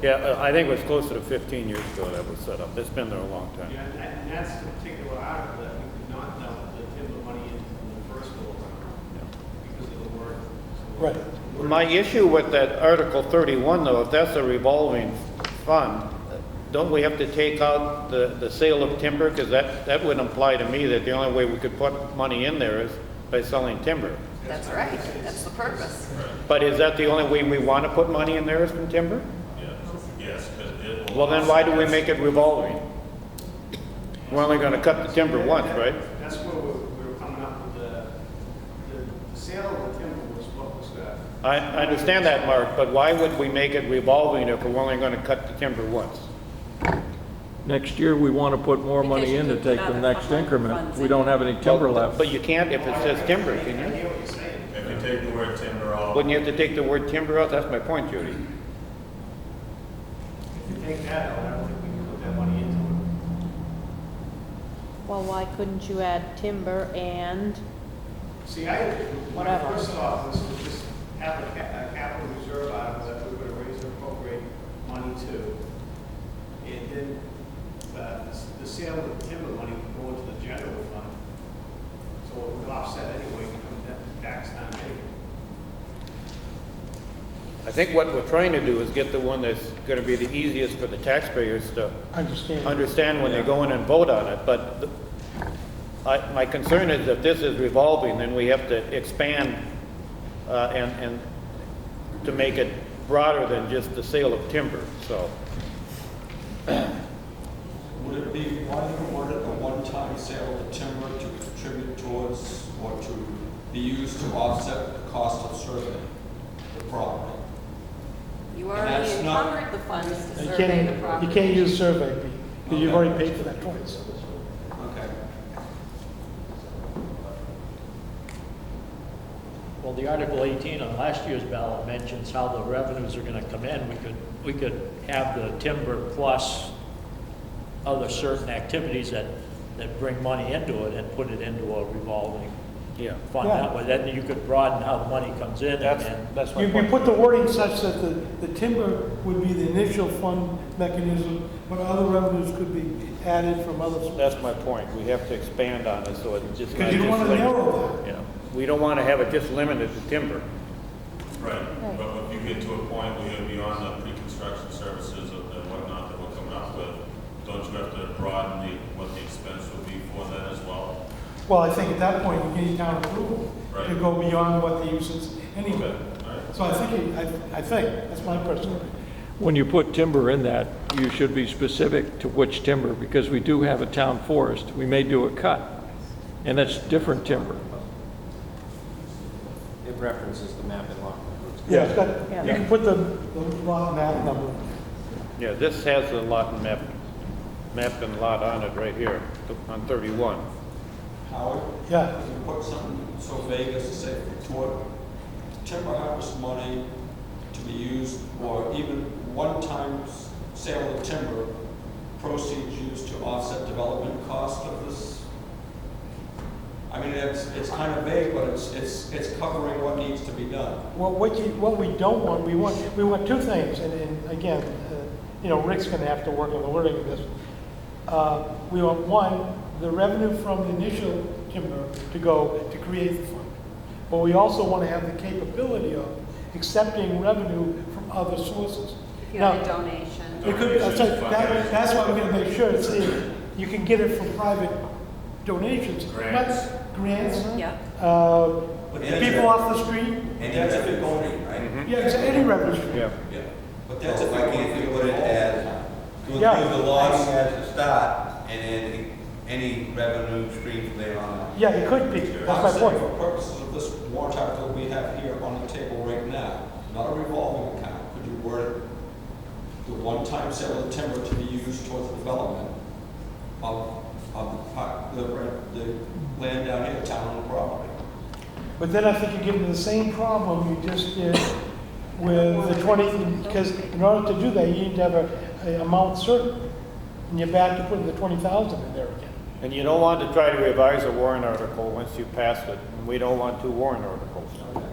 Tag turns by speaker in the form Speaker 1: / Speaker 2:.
Speaker 1: Yeah, uh, I think it was closer to 15 years ago that was set up. It's been there a long time.
Speaker 2: Yeah, and- and that's the particular article that we did not dump the timber money in from the first go around because of the word.
Speaker 3: Right.
Speaker 4: My issue with that Article 31, though, if that's a revolving fund, don't we have to take out the, the sale of timber? Because that, that would imply to me that the only way we could put money in there is by selling timber.
Speaker 5: That's right, that's the purpose.
Speaker 4: But is that the only way we want to put money in there is from timber?
Speaker 6: Yes, because it will.
Speaker 4: Well, then why do we make it revolving? We're only going to cut the timber once, right?
Speaker 2: That's where we we were coming up with the, the- the sale of the timber was what was uh, that?
Speaker 4: I, I understand that, Mark, but why would we make it revolving if we're only going to cut the timber once?
Speaker 3: Next year, we want to put more money in to take the next increment. We don't have any timber left.
Speaker 4: But you can't if it says timber, can you?
Speaker 6: If you take the word timber off.
Speaker 4: Wouldn't you have to take the word timber out? That's my point, Judy.
Speaker 2: If you take that out, I don't think we can put that money into it.
Speaker 7: Well, why couldn't you add timber and,
Speaker 2: See, I, what I
Speaker 7: Whatever.
Speaker 2: first thought was to just have a ca- a capital reserve item that we were gonna raise and appropriate money to. And then, uh, the s- the sale of the timber money would go into the general fund. So it would offset anyway, come that tax time anyway.
Speaker 4: I think what we're trying to do is get the one that's gonna be the easiest for the taxpayers to
Speaker 3: Understand.
Speaker 4: understand when they go in and vote on it, but the- I, my concern is if this is revolving, then we have to expand, uh, and, and to make it broader than just the sale of timber, so.
Speaker 8: Would it be one, would it a one-time sale of timber to contribute towards or to be used to offset the cost of surveying the property?
Speaker 5: You
Speaker 8: And
Speaker 5: already
Speaker 8: that's not-
Speaker 5: encumbered the funds to
Speaker 3: You
Speaker 5: survey the
Speaker 3: can't,
Speaker 5: property.
Speaker 3: you can't use survey B, because you've already paid for that twice.
Speaker 8: Okay.
Speaker 9: Well, the Article 18 on last year's ballot mentions how the revenues are going to come in. We could, we could have the timber plus other certain activities that, that bring money into it and put it into a revolving
Speaker 4: Yeah.
Speaker 9: fund that way. Then you could broaden how the money comes in
Speaker 4: That's,
Speaker 9: and,
Speaker 4: that's my
Speaker 3: You, you
Speaker 4: point.
Speaker 3: put the wording such that the, the timber would be the initial fund mechanism, but other revenues could be added from other sources.
Speaker 4: That's my point, we have to expand on it, so it's just.
Speaker 3: Because you don't
Speaker 4: not
Speaker 3: want
Speaker 4: just
Speaker 3: to
Speaker 4: limited-
Speaker 3: narrow
Speaker 4: Yeah, we don't wanna have it just limited to timber.
Speaker 6: Right, but if you get to a point where you're beyond the pre-construction services and the whatnot that we're coming up with, don't you have to broaden the, what the expense would be for that as well?
Speaker 3: that. Well, I think at that point, you need town approval to
Speaker 6: Right.
Speaker 3: go beyond what the use is
Speaker 6: Okay,
Speaker 3: anyway.
Speaker 6: all right.
Speaker 3: So I think, it- I, I think, that's my personal opinion.
Speaker 10: When you put timber in that, you should be specific to which timber, because we do have a town forest. We may do a cut, and that's different timber.
Speaker 11: It references the map in law.
Speaker 3: Yeah, it's got, you can put the, the lot map number.
Speaker 4: Yeah, this has the lot and map, map and lot on it right here, on thirty-one.
Speaker 8: Howard?
Speaker 3: Yeah.
Speaker 8: If you put something so vague as to say toward timber harvest money to be used, or even one-time s- sale of timber, proceeds used to offset development cost of this? I mean, it's, it's kind of vague, but it's, it's, it's covering what needs to be done.
Speaker 3: Well, what you, what we don't want, we want, we want two things, and, and again, uh, you know, Rick's gonna have to work on the wording of this. Uh, we want, one, the revenue from the initial timber to go to create the fund. But we also wanna have the capability of accepting revenue from other sources.
Speaker 5: If you have a
Speaker 3: Now,
Speaker 5: donation.
Speaker 3: it could, I'm sorry, that, that's why we're gonna make sure it's, in. you can get it from private donations. not
Speaker 6: Grants.
Speaker 3: Grants,
Speaker 5: Yeah.
Speaker 3: uh,
Speaker 8: But that's-
Speaker 3: people off the street,
Speaker 8: And that's if it goes,
Speaker 11: right?
Speaker 3: yeah, it's any revenue stream.
Speaker 4: Yeah.
Speaker 8: yeah, but that's
Speaker 11: That's
Speaker 8: if
Speaker 11: Oh, if
Speaker 8: it
Speaker 11: I can't
Speaker 8: goes.
Speaker 11: do it as, to
Speaker 3: Yeah.
Speaker 11: include the loss as a start, and then any revenue stream from there on out.
Speaker 3: Yeah, it could be, that's my
Speaker 8: I'm saying
Speaker 3: point.
Speaker 8: For purposes of this warrant article we have here on the table right now, not a revolving account, could you word it? The one-time sale of timber to be used towards the development of, of the, par- the, the land down here, town and property.
Speaker 3: But then I think you get into the same problem you just did with the twenty, because in order to do that, you need to have a, a amount certain. And you're back to putting the twenty thousand in there again.
Speaker 4: And you don't want to try to revise a warrant article once you pass it, and we don't want two warrant articles.